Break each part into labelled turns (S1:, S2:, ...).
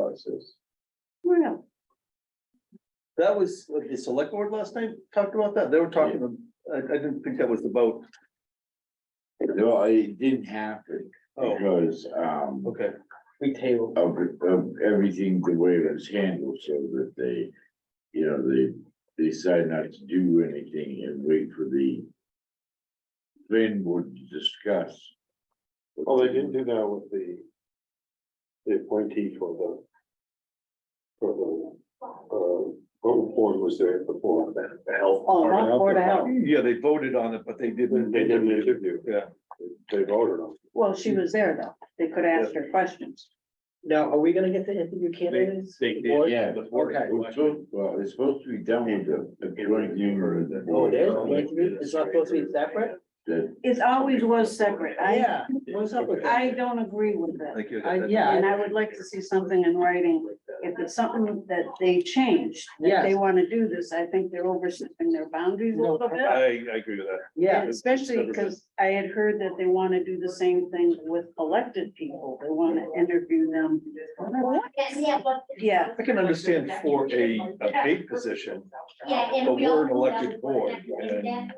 S1: ordinances.
S2: Well,
S1: That was what the select board last night talked about that. They were talking, I, I didn't think that was the vote.
S3: Well, it didn't happen
S1: Oh,
S3: because um
S1: okay.
S4: We table.
S3: of of everything, the way it was handled, so that they. You know, they they decided not to do anything and wait for the. Plan board to discuss.
S4: Oh,
S5: Well, they didn't do that with the. The appointee for the. For the, uh, what board was there before that, the health.
S2: Oh, not Board of Health.
S1: Yeah, they voted on it, but they didn't.
S5: They didn't interview,
S1: Yeah.
S5: they voted on.
S2: well, she was there though. They could ask her questions.
S4: Now, are we gonna get to interview candidates?
S1: They did,
S4: Or-
S3: Yeah.
S4: Okay.
S3: Well, so- Well, it's supposed to be done with the the joint humor of the.
S4: Oh, it is?
S3: board.
S4: It's not supposed to be separate?
S3: That-
S2: It always was separate. I,
S4: Yeah, what's up with that?
S2: I don't agree with that.
S1: Thank you.
S4: I- yeah.
S2: And I would like to see something in writing. If it's something that they changed, that they
S4: Yes.
S2: want to do this, I think they're overstepping their boundaries a
S4: No,
S2: little
S4: I-
S2: bit.
S1: I, I agree with that.
S4: Yeah,
S2: And Especially because I had heard that they want to do the same thing with elected people. They want to interview them. Yeah.
S1: I can understand for a, a paid position,
S6: Yeah, and
S1: But
S6: we
S1: we're
S6: all
S1: an
S6: know
S1: elected
S6: that
S1: board,
S6: that's-
S1: and
S6: that's-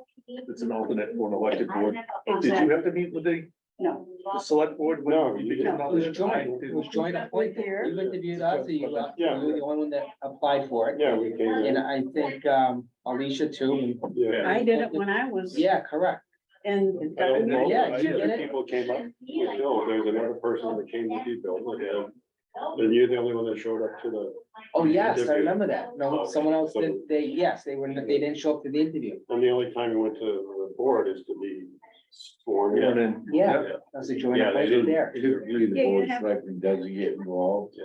S1: it's an alternate for an elected board. Did
S2: Exactly.
S1: you have to meet with the,
S2: No,
S1: the select board? when
S5: No,
S1: you
S5: you
S1: became
S2: didn't.
S4: It was joint,
S1: alternate?
S4: it was joint appointment. You interviewed us, and you were you
S5: Yeah.
S4: were the only one that applied for it.
S5: Yeah, we came in,
S4: And I think, um, Alicia too.
S5: yeah.
S2: I did it when I was
S4: Yeah, correct.
S2: in.
S5: I don't know,
S4: Yeah,
S5: I
S4: you
S5: think
S4: did it.
S5: people came up, you know, there's another person that came to you, Bill, and,
S6: Oh,
S5: and you're the only one that showed up to the.
S4: Oh, yes, I
S5: Interview.
S4: remember that. No, someone else
S5: So-
S4: did, they, yes, they were, they didn't show up to the interview.
S5: And the only time you went to the board is to be sworn
S1: You know,
S5: in.
S1: then-
S4: Yeah, that was a joint
S5: Yeah, they
S4: appointment there.
S3: Typically, the
S2: Yeah, you
S3: board
S2: have-
S3: selectman doesn't get involved.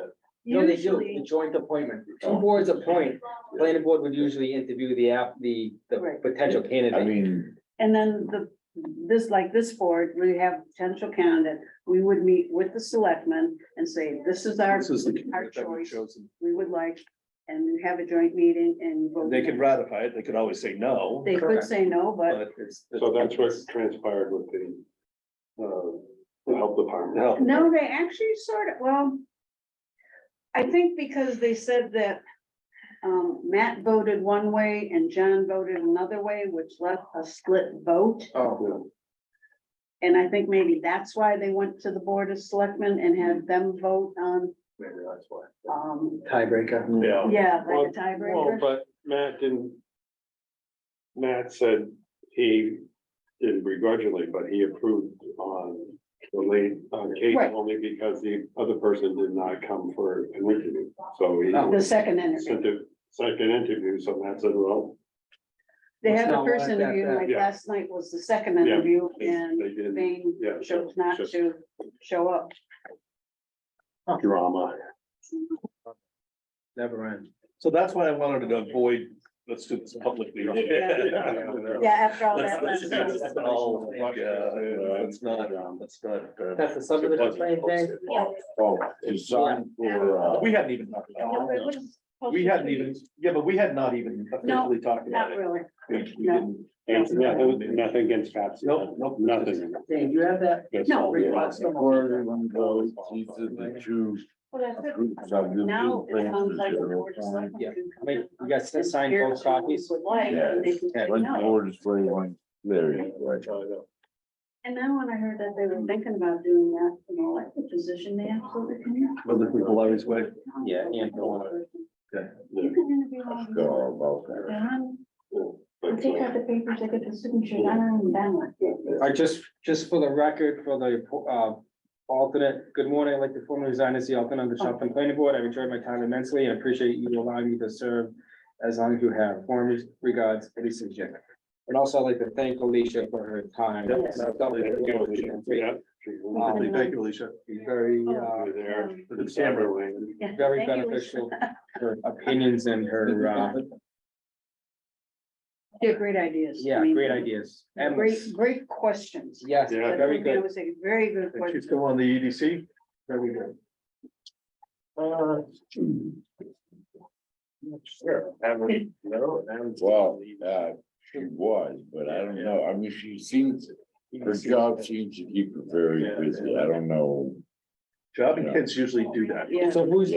S4: No, they do, the
S2: Usually,
S4: joint appointment. Two boards appoint, planning board would usually interview the app, the, the
S2: Right.
S4: potential
S3: I
S4: candidate.
S3: mean,
S2: and then the, this, like this board, we have potential candidate, we would meet with the selectmen and say, this is our,
S1: This is the.
S2: our
S1: that was
S2: choice,
S1: chosen.
S2: we would like, and have a joint meeting and. vote.
S1: They could ratify it, they could always say no,
S2: They could
S4: correct.
S2: say no, but
S1: but it's.
S5: So that's what transpired with the, uh, the health department.
S1: No.
S2: no, they actually sort of, well, I think because they said that um, Matt voted one way and John voted another way, which left a split vote.
S4: Oh,
S2: And I think maybe that's why they went to the Board of Selectmen and had them vote on,
S5: Maybe that's why.
S2: um,
S4: tiebreaker.
S5: Yeah.
S2: yeah, like a
S5: Well,
S2: tiebreaker.
S5: but Matt didn't. Matt said he didn't begrudgingly, but he approved on the late, on Kate
S2: Right.
S5: only because the other person did not come for an interview. So he
S4: Oh.
S2: The second
S5: sent
S2: interview.
S5: a second interview, so Matt said, well,
S2: They
S4: It's
S2: had the
S4: not
S2: first
S4: like that,
S2: interview,
S4: that-
S2: like
S5: yeah.
S2: last night was the second
S5: Yeah,
S2: interview
S5: they
S2: and
S5: they didn't.
S2: Bain
S5: Yeah.
S2: chose not
S5: just
S2: to show up.
S5: Drama.
S4: Never end.
S1: So that's why I wanted to avoid, let's do this publicly.
S2: Yeah, after all that.
S1: Let's- let's- let's all, like, uh, Let's not, let's not. uh,
S4: That's the subdivision plan thing.
S3: oh, designed for uh.
S1: We hadn't even talked about it. We hadn't even, yeah, but we had not even officially talked about
S2: Not
S1: it.
S2: really.
S1: We- we
S2: No.
S1: didn't-
S5: And nothing, nothing against Patsy.
S1: Nope, nope.
S5: Nothing.
S4: Dave, you have that?
S5: That's
S2: No.
S5: all, yeah.
S3: Or everyone goes, these are the two groups of the
S2: Now it sounds like. the Board
S3: plan.
S2: of Selectmen
S4: Yeah.
S2: can come
S4: Wait,
S2: in
S4: you guys
S2: and
S4: signed
S2: here's
S4: both
S2: who we
S4: copies?
S2: Would like, and they can
S4: Yeah.
S2: say
S3: One
S2: no. Oh,
S3: board is where one, there you go.
S2: And then when I heard that they were thinking about doing that, you know, like the position they absolutely can.
S1: Well, the people always wait.
S4: Yeah, and go
S2: You can interview all of them.
S3: Go about that.
S2: John, I'll
S5: uh,
S2: take out the papers, I get the signature, I don't even balance.
S4: All right, just, just for the record, for the, uh, alternate, good morning, I'd like to formally resign as the alternate of the Shopton Planning Board. I've enjoyed my time immensely and appreciate you allowing me to serve as long as you have. Form regards, Alicia Jacob. And also I'd like to thank Alicia for her time.
S2: Yes.
S4: She's
S5: Yeah.
S4: Um,
S1: Thank you, Alicia.
S4: Very, uh,
S5: You're there.
S1: For the camera.
S2: oh, Yeah,
S4: very
S2: thank you, Lisa.
S4: beneficial, her opinions and her, uh,
S2: Yeah, great ideas. I
S4: yeah,
S2: mean,
S4: great ideas. Endless.
S2: Great, great questions.
S4: Yes,
S5: Yeah.
S4: very
S2: I
S4: good.
S2: would say, very good
S1: And She's
S2: questions.
S1: still on the E EDC. Very good. Uh,
S5: Sure, haven't, no, haven't.
S3: Well, uh, she was, but I don't know, I mean, she seems, her job seems to keep her very busy, I don't know.
S1: Job and kids usually do that.
S2: Yeah.
S4: So who's